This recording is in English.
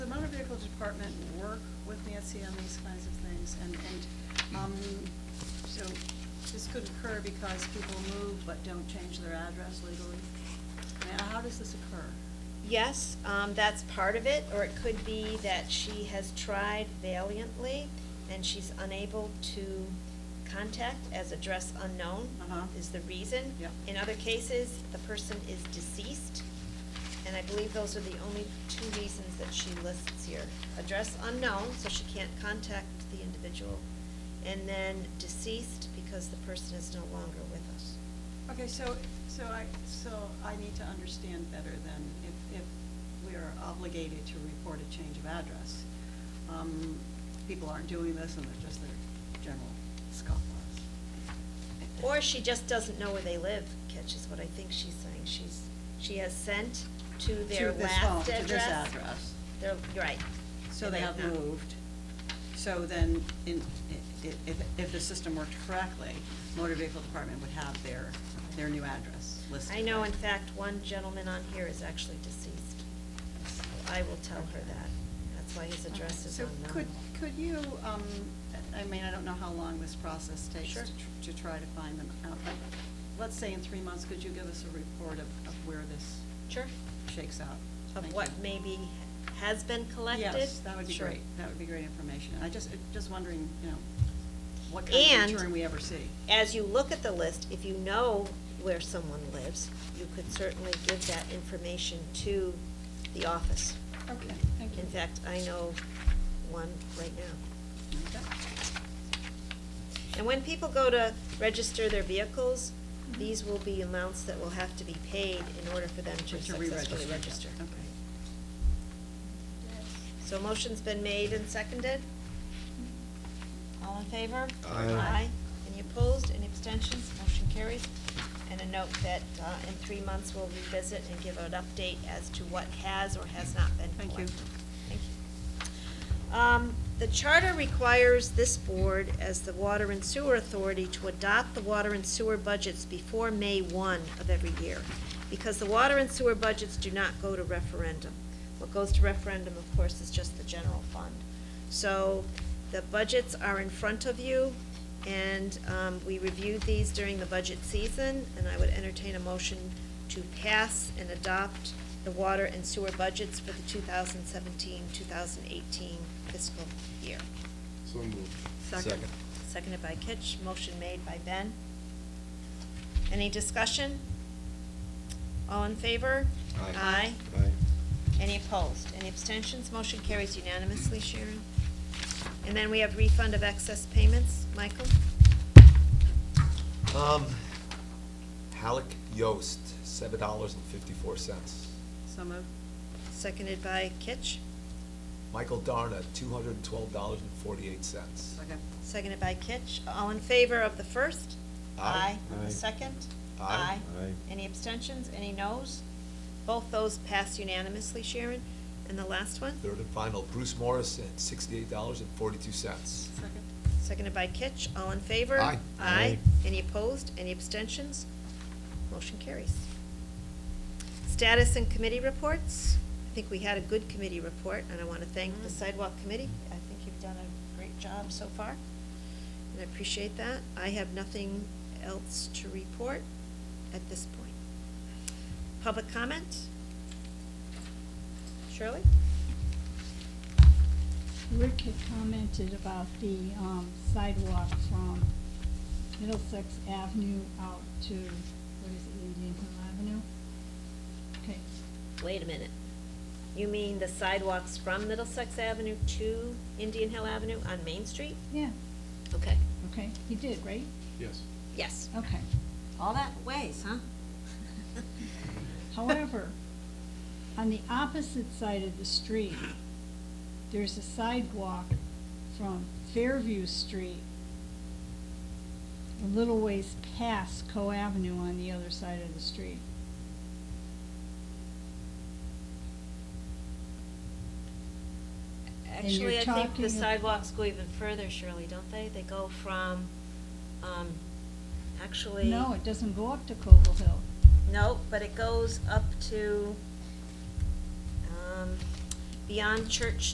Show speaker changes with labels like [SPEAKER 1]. [SPEAKER 1] Department work with Nancy on these kinds of things, and, and, um, so this could occur because people move but don't change their address legally. Now, how does this occur?
[SPEAKER 2] Yes, um, that's part of it, or it could be that she has tried valiantly and she's unable to contact as address unknown
[SPEAKER 1] Uh-huh.
[SPEAKER 2] is the reason.
[SPEAKER 1] Yep.
[SPEAKER 2] In other cases, the person is deceased, and I believe those are the only two reasons that she lists here. Address unknown, so she can't contact the individual, and then deceased because the person is no longer with us.
[SPEAKER 1] Okay, so, so I, so I need to understand better then, if, if we are obligated to report a change of address. Um, People aren't doing this, and they're just their general scofflaws.
[SPEAKER 2] Or she just doesn't know where they live, Catch is what I think she's saying. She's, she has sent to their
[SPEAKER 1] To this
[SPEAKER 2] last
[SPEAKER 1] home,
[SPEAKER 2] address.
[SPEAKER 1] to this address.
[SPEAKER 2] Their- right.
[SPEAKER 1] So
[SPEAKER 2] And
[SPEAKER 1] they have
[SPEAKER 2] not-
[SPEAKER 1] moved. So then, in, i- i- if, if the system worked correctly, motor vehicle department would have their, their new address listed.
[SPEAKER 2] I know,
[SPEAKER 1] right?
[SPEAKER 2] in fact, one gentleman on here is actually deceased. So I will tell her that. That's why his address is unknown.
[SPEAKER 1] So could, could you, um, I mean, I don't know how long this process takes
[SPEAKER 2] Sure.
[SPEAKER 1] to tr- to try to find them out, but let's say in three months, could you give us a report of, of where this
[SPEAKER 2] Sure.
[SPEAKER 1] shakes out?
[SPEAKER 2] Of
[SPEAKER 1] Thank
[SPEAKER 2] what
[SPEAKER 1] you.
[SPEAKER 2] maybe has been collected?
[SPEAKER 1] Yes, that would be
[SPEAKER 2] Sure.
[SPEAKER 1] great, that would be great information. I just, just wondering, you know, what kind
[SPEAKER 2] And-
[SPEAKER 1] of return we ever see.
[SPEAKER 2] as you look at the list, if you know where someone lives, you could certainly give that information to the office.
[SPEAKER 1] Okay, thank you.
[SPEAKER 2] In fact, I know one right now. And when people go to register their vehicles,
[SPEAKER 1] Mhm.
[SPEAKER 2] these will be amounts that will have to be paid in order for them to
[SPEAKER 1] To
[SPEAKER 2] successfully
[SPEAKER 1] re-register, yeah,
[SPEAKER 2] register.
[SPEAKER 1] okay.
[SPEAKER 2] So motion's been made and seconded? All in favor?
[SPEAKER 3] Aye.
[SPEAKER 2] Any opposed, any abstentions? Motion carries. And a note that uh, in three months, we'll revisit and give an update as to what has or has not been
[SPEAKER 1] Thank you.
[SPEAKER 2] collected. Thank you. Um, The charter requires this board, as the Water and Sewer Authority, to adopt the water and sewer budgets before May 1 of every year, because the water and sewer budgets do not go to referendum. What goes to referendum, of course, is just the general fund. So the budgets are in front of you, and um, we reviewed these during the budget season, and I would entertain a motion to pass and adopt the water and sewer budgets for the 2017-2018 fiscal year.
[SPEAKER 3] So moved.
[SPEAKER 1] Second.
[SPEAKER 2] Seconded by Kitch, motion made by Ben. Any discussion? All in favor?
[SPEAKER 3] Aye.
[SPEAKER 2] Aye. Any opposed? Any abstentions? Motion carries unanimously, Sharon. And then we have refund of excess payments. Michael?
[SPEAKER 4] Um, Halleck Yost, seven dollars and fifty-four cents.
[SPEAKER 1] So moved.
[SPEAKER 2] Seconded by Kitch.
[SPEAKER 4] Michael Darna, two hundred and twelve dollars and forty-eight cents.
[SPEAKER 1] Second.
[SPEAKER 2] Seconded by Kitch. All in favor of the first?
[SPEAKER 4] Aye.
[SPEAKER 2] On
[SPEAKER 3] Aye.
[SPEAKER 2] the second?
[SPEAKER 4] Aye.
[SPEAKER 3] Aye.
[SPEAKER 2] Any abstentions? Any noes? Both those pass unanimously, Sharon. And the last one?
[SPEAKER 4] Third and final, Bruce Morrison, sixty-eight dollars and forty-two cents.
[SPEAKER 1] Second.
[SPEAKER 2] Seconded by Kitch. All in favor?
[SPEAKER 4] Aye.
[SPEAKER 2] Aye.
[SPEAKER 3] Aye.
[SPEAKER 2] Any opposed? Any abstentions? Motion carries. Status and committee reports. I think we had a good committee report, and I want to thank the
[SPEAKER 1] Mm.
[SPEAKER 2] sidewalk committee. I think you've done a great job so far, and I appreciate that. I have nothing else to report at this point. Public comment? Shirley?
[SPEAKER 5] Rick had commented about the um, sidewalk from Middlesex Avenue out to, what is it, Indian Hill Avenue? Okay,
[SPEAKER 2] Wait a minute. You mean the sidewalks from Middlesex Avenue to Indian Hill Avenue on Main Street?
[SPEAKER 5] yeah,
[SPEAKER 2] Okay.
[SPEAKER 5] okay, he did, right?
[SPEAKER 3] Yes.
[SPEAKER 2] Yes.
[SPEAKER 5] Okay.
[SPEAKER 2] All that ways, huh?
[SPEAKER 5] However, on the opposite side of the street, there's a sidewalk from Fairview Street a little ways past Co Avenue on the other side of the street. And you're
[SPEAKER 2] Actually, I think
[SPEAKER 5] talking
[SPEAKER 2] the
[SPEAKER 5] ab-
[SPEAKER 2] sidewalks go even further, Shirley, don't they? They go from, um, actually.
[SPEAKER 5] No, it doesn't go up to Cobble Hill.
[SPEAKER 2] No, but it goes up to, um, beyond Church